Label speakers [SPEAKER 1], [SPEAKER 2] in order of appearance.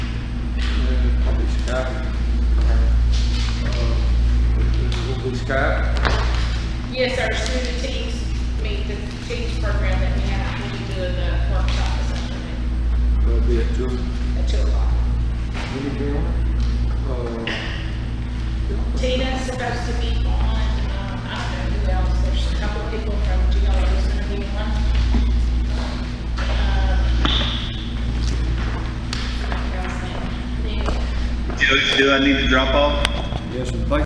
[SPEAKER 1] Scott?
[SPEAKER 2] Yes, sir, through the teams, I mean, the teams program that we have, when we do the workshop this afternoon
[SPEAKER 1] That'll be at two.
[SPEAKER 2] at two o'clock.
[SPEAKER 1] Uh,
[SPEAKER 2] Tina's supposed to be on, um, I don't know who else, there's a couple of people from GLO who's gonna be on. Um, Uh, I forgot her last name. Anyway.
[SPEAKER 3] Do, do I need to drop off?
[SPEAKER 1] Yes, sir.